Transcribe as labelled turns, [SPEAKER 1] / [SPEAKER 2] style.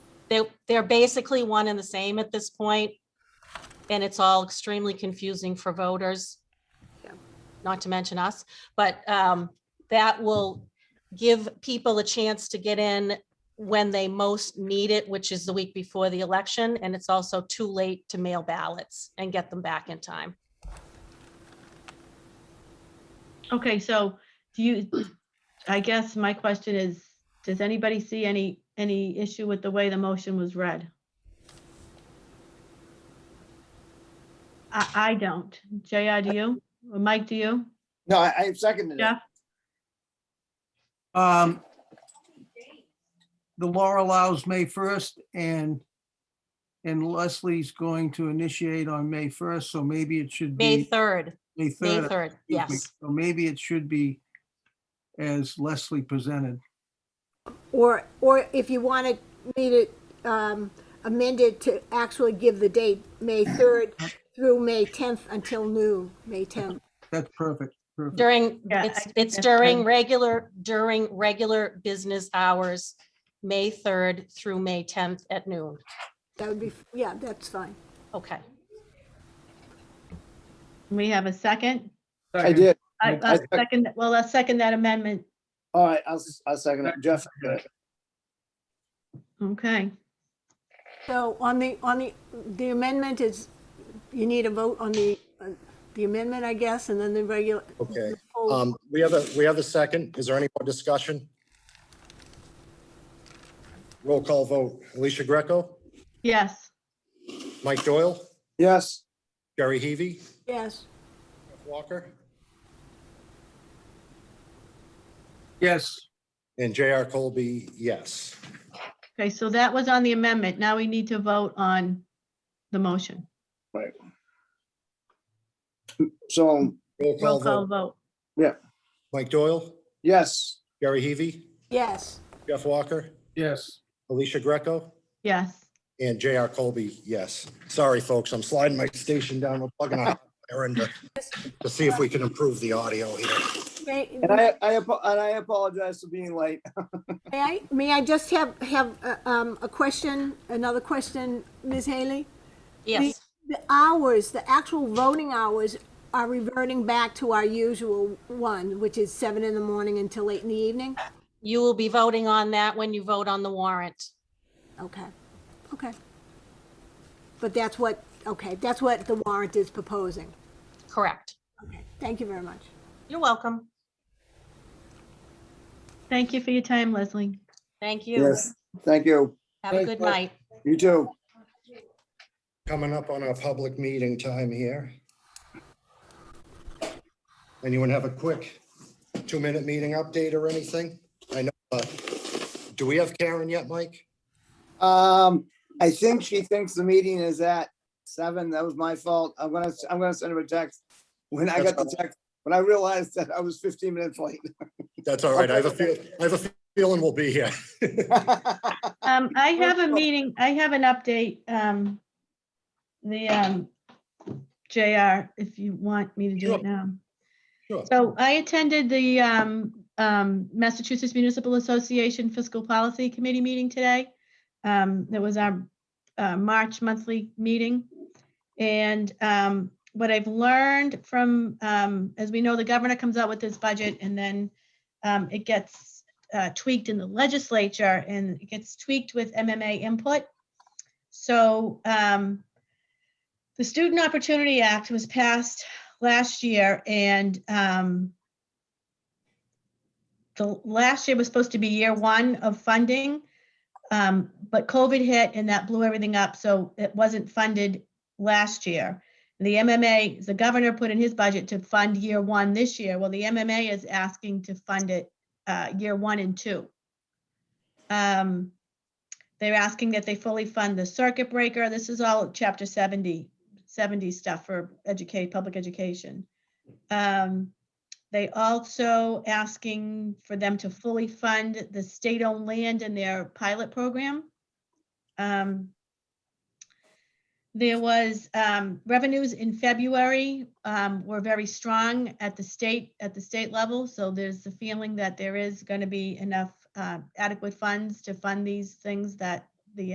[SPEAKER 1] they, they're basically one and the same at this point, And it's all extremely confusing for voters.
[SPEAKER 2] Yeah.
[SPEAKER 1] Not to mention us, but um, that will give people a chance to get in when they most need it, which is the week before the election. And it's also too late to mail ballots and get them back in time.
[SPEAKER 3] Okay, so do you, I guess my question is, does anybody see any, any issue with the way the motion was read? I, I don't. JR, do you? Or Mike, do you?
[SPEAKER 4] No, I, I seconded it.
[SPEAKER 3] Jeff?
[SPEAKER 5] Um, The law allows May 1st and, and Leslie's going to initiate on May 1st, so maybe it should
[SPEAKER 1] May
[SPEAKER 5] be
[SPEAKER 1] 3rd,
[SPEAKER 5] May
[SPEAKER 1] May
[SPEAKER 5] 3rd.
[SPEAKER 1] 3rd,
[SPEAKER 5] excuse me.
[SPEAKER 1] yes.
[SPEAKER 5] So maybe it should be as Leslie presented.
[SPEAKER 2] Or, or if you want to need it um, amended to actually give the date, May 3rd through May 10th until noon, May 10th.
[SPEAKER 5] That's perfect. perfect.
[SPEAKER 1] During,
[SPEAKER 3] Yeah, I
[SPEAKER 1] it's,
[SPEAKER 3] think
[SPEAKER 1] it's
[SPEAKER 3] that's
[SPEAKER 1] during
[SPEAKER 3] fine.
[SPEAKER 1] regular, during regular business hours, May 3rd through May 10th at noon.
[SPEAKER 2] That would be, yeah, that's fine.
[SPEAKER 1] Okay.
[SPEAKER 3] We have a second?
[SPEAKER 4] I did.
[SPEAKER 3] I,
[SPEAKER 4] I-
[SPEAKER 3] a second, well, a second that amendment.
[SPEAKER 4] All right, I'll, s- I'll second it. Jeff, did it.
[SPEAKER 3] Okay,
[SPEAKER 2] So on the, on the, the amendment is, you need a vote on the, on the amendment, I guess, and then the regular.
[SPEAKER 6] Okay,
[SPEAKER 2] full-
[SPEAKER 6] um, we have a, we have a second. Is there any more discussion? Roll call vote. Alicia Greco,
[SPEAKER 3] yes.
[SPEAKER 6] Mike Doyle,
[SPEAKER 4] yes,
[SPEAKER 6] Jerry Heavy,
[SPEAKER 2] Yes,
[SPEAKER 6] Walker,
[SPEAKER 5] Yes,
[SPEAKER 6] and JR Colby, yes.
[SPEAKER 3] Okay, so that was on the amendment. Now we need to vote on the motion.
[SPEAKER 4] so,
[SPEAKER 6] Roll
[SPEAKER 3] Roll
[SPEAKER 6] call
[SPEAKER 3] call
[SPEAKER 6] vote.
[SPEAKER 3] vote.
[SPEAKER 6] Mike Doyle,
[SPEAKER 4] yes,
[SPEAKER 6] Jerry Heavy,
[SPEAKER 2] yes,
[SPEAKER 6] Jeff Walker,
[SPEAKER 5] yes.
[SPEAKER 6] Alicia Greco,
[SPEAKER 3] Yes.
[SPEAKER 6] and JR Colby, yes. Sorry, folks, I'm sliding my station down. We're plugging a errand to- to see if we can improve the audio here.
[SPEAKER 2] May-
[SPEAKER 4] and I, I, apo- and I apologize for being late.
[SPEAKER 2] May I, may I just have, have uh, um, a question, another question, Ms. Haley?
[SPEAKER 1] Yes,
[SPEAKER 2] The hours, the actual voting hours are reverting back to our usual one, which is seven in the morning until late in the evening?
[SPEAKER 1] you will be voting on that when you vote on the warrant.
[SPEAKER 2] Okay, okay. But that's what, okay, that's what the warrant is proposing.
[SPEAKER 1] Correct.
[SPEAKER 2] Okay, thank you very much.
[SPEAKER 1] You're welcome.
[SPEAKER 3] Thank you for your time, Leslie.
[SPEAKER 1] Thank you.
[SPEAKER 4] Yes, thank you.
[SPEAKER 1] Have a good night.
[SPEAKER 4] You too.
[SPEAKER 6] Coming up on our public meeting time here. Anyone have a quick two-minute meeting update or anything? I know, uh, do we have Karen yet, Mike?
[SPEAKER 4] Um, I think she thinks the meeting is at seven. That was my fault. I'm gonna, I'm gonna send her a text. When I got the text, when I realized that I was fifteen minutes late.
[SPEAKER 6] That's all right. I have a feel, I have a feeling we'll be here.
[SPEAKER 3] Um, I have a
[SPEAKER 4] Rachel.
[SPEAKER 3] meeting, I have an update, um, the, um, JR, if you want me to do it
[SPEAKER 6] Sure.
[SPEAKER 3] now.
[SPEAKER 6] Sure.
[SPEAKER 3] So I attended the, um, um, Massachusetts Municipal Association Fiscal Policy Committee meeting today. Um, that was our, uh, March monthly meeting. And, um, what I've learned from, um, as we know, the governor comes out with his budget and then, um, it gets uh, tweaked in the legislature and it gets tweaked with MMA input. So um, the Student Opportunity Act was passed last year and um, the last year was supposed to be year one of funding, um, but COVID hit and that blew everything up. So it wasn't funded last year. The MMA, the governor put in his budget to fund year one this year. Well, the MMA is asking to fund it uh, year one and two. Um, They're asking that they fully fund the circuit breaker. This is all chapter 70, 70 stuff for educate, public education. Um, They also asking for them to fully fund the state-owned land in their pilot program. Um, There was um, revenues in February um, were very strong at the state, at the state level. So there's the feeling that there is going to be enough uh, adequate funds to fund these things that